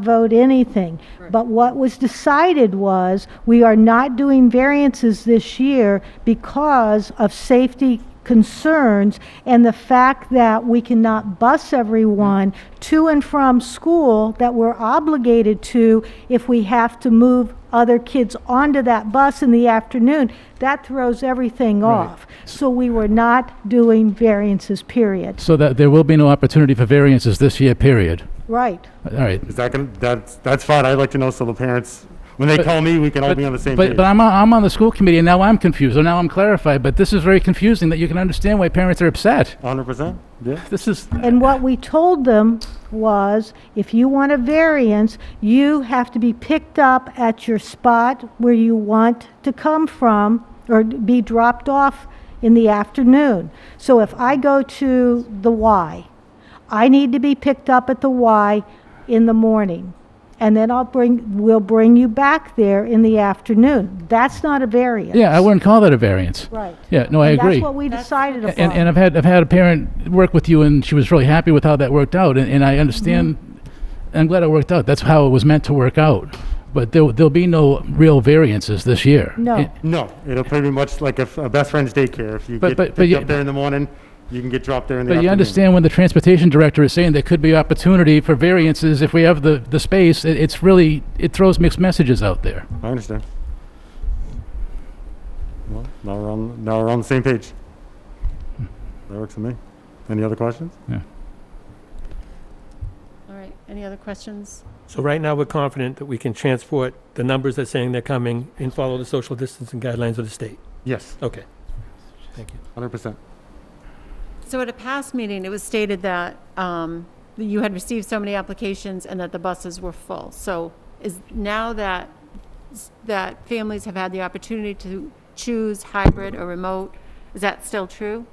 vote anything. But what was decided was, we are not doing variances this year because of safety concerns and the fact that we cannot bus everyone to and from school that we're obligated to if we have to move other kids onto that bus in the afternoon. That throws everything off. So we were not doing variances, period. So that there will be no opportunity for variances this year, period. Right. All right. Is that gonna, that's, that's fine, I'd like to know so the parents, when they call me, we can all be on the same But, page. but I'm, on- I'm on the school committee, and now I'm confused, and now I'm clarified, but this is very confusing that you can understand why parents are upset. Hundred percent, yeah. This is, And what we told them was, if you want a variance, you have to be picked up at your spot where you want to come from or be dropped off in the afternoon. So if I go to the Y, I need to be picked up at the Y in the morning. And then I'll bring, we'll bring you back there in the afternoon. That's not a variance. yeah, I wouldn't call that a variance. Right. Yeah, no, I And agree. That's what we decided upon. And, and I've had, I've had a parent work with you, and she was really happy with how that worked out, and, and I understand, Mm-hmm. I'm glad it worked out. That's how it was meant to work out. But there, there'll be no real variances this year. No. And- No, it'll pretty much like a, f- a best friend's daycare, if you But- get but- but picked you- up there in the morning, you can get dropped there in the But you afternoon. understand when the transportation director is saying there could be opportunity for variances if we have the, the space, it, it's really, it throws mixed messages out there. I understand. Well, now we're on, now we're on the same page. That works for me. Any other questions? All right, any other questions? So right now, we're confident that we can transport the numbers that's saying they're coming and follow the social distancing guidelines of the state. Yes, Okay. Thank you. hundred percent. So at a past meeting, it was stated that um, that you had received so many applications and that the buses were full. So is, now that, that families have had the opportunity to choose hybrid or remote, is that still true?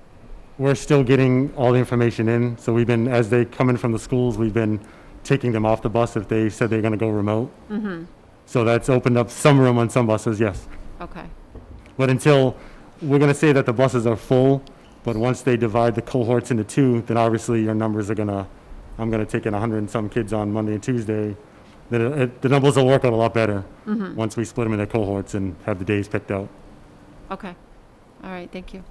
We're still getting all the information in, so we've been, as they come in from the schools, we've been taking them off the bus if they said they're gonna go remote. So that's opened up some room on some buses, yes. Okay, But until, we're gonna say that the buses are full, but once they divide the cohorts into two, then obviously your numbers are gonna, I'm gonna take in hundred and some kids on Monday and Tuesday. Then it- it, the numbers will work out a lot better, once we split them into cohorts and have the days picked out. okay. All right, thank you.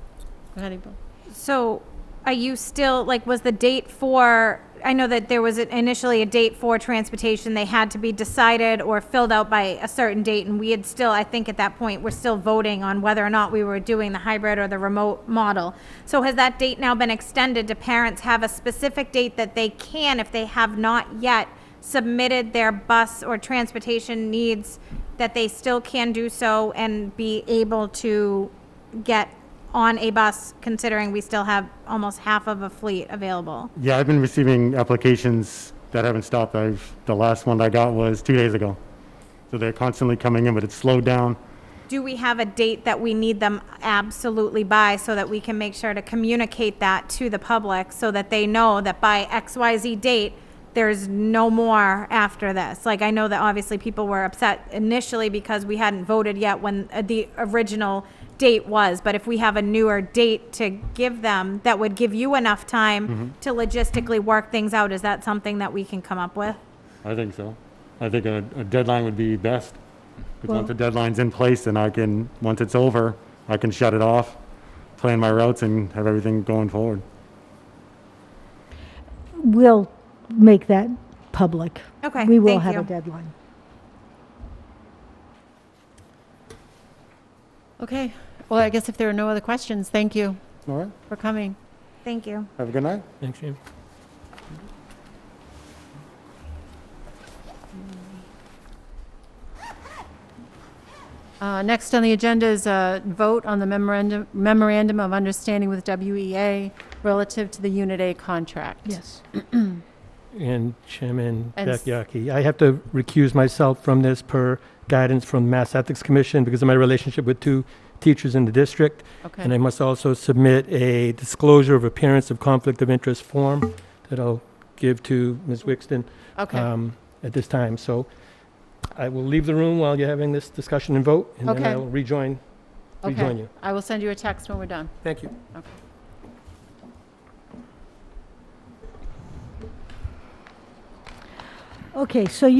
Go ahead, April. So are you still, like, was the date for, I know that there was initially a date for transportation, they had to be decided or filled out by a certain date, and we had still, I think at that point, we're still voting on whether or not we were doing the hybrid or the remote model. So has that date now been extended? Do parents have a specific date that they can, if they have not yet submitted their bus or transportation needs, that they still can do so and be able to get on a bus, considering we still have almost half of a fleet available. Yeah, I've been receiving applications that haven't stopped. I've, the last one I got was two days ago. So they're constantly coming in, but it's slowed down. Do we have a date that we need them absolutely by so that we can make sure to communicate that to the public so that they know that by XYZ date, there's no more after this? Like, I know that obviously people were upset initially because we hadn't voted yet when uh, the original date was, but if we have a newer date to give them, that would give you enough time to logistically work things out. Is that something that we can come up with? I think so. I think a, a deadline would be best. 'Cause Well- once the deadline's in place, then I can, once it's over, I can shut it off, plan my routes and have everything going forward. We'll make that public. Okay, We will thank have a you. deadline. Okay, well, I guess if there are no other questions, thank you All right, for coming. Thank you. have a good night. Thanks, Jim. Uh, Next on the agenda is a vote on the memorandum, memorandum of understanding with WEA relative to the Unit A contract. Yes. And Chairman And s- Beckyaki, I have to recuse myself from this per guidance from the Mass Ethics Commission because of my relationship with two teachers in the district. And I Okay, must also submit a disclosure of appearance of conflict of interest form that I'll give to Ms. Wixton. okay, um, at this time. So I will leave the room while you're having this discussion and vote, and then Okay. I will rejoin, rejoin okay. you. I will send you a text when we're done. Thank you. Okay, so